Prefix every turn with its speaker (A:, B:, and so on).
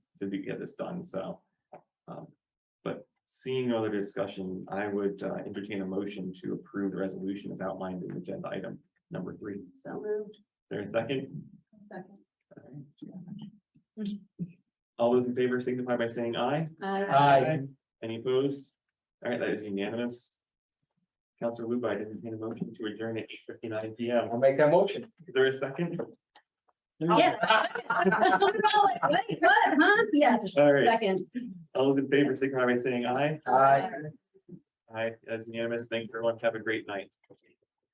A: to do- get this done, so. um, But seeing no other discussion, I would uh, entertain a motion to approve the resolution as outlined in agenda item number three.
B: So moved.
A: There a second?
B: Second.
A: All those in favor signify by saying aye.
B: Aye.
A: Any opposed? All right, that is unanimous. Counselor Luba, I didn't a motion to adjourn at eight fifty-nine P M.
C: I'll make that motion.
A: Is there a second?
B: Yes. Wait, what, huh? Yes,
A: All right,
B: second.
A: all those in favor signify by saying aye.
C: Aye.
A: Aye, that's unanimous. Thanks everyone. Have a great night.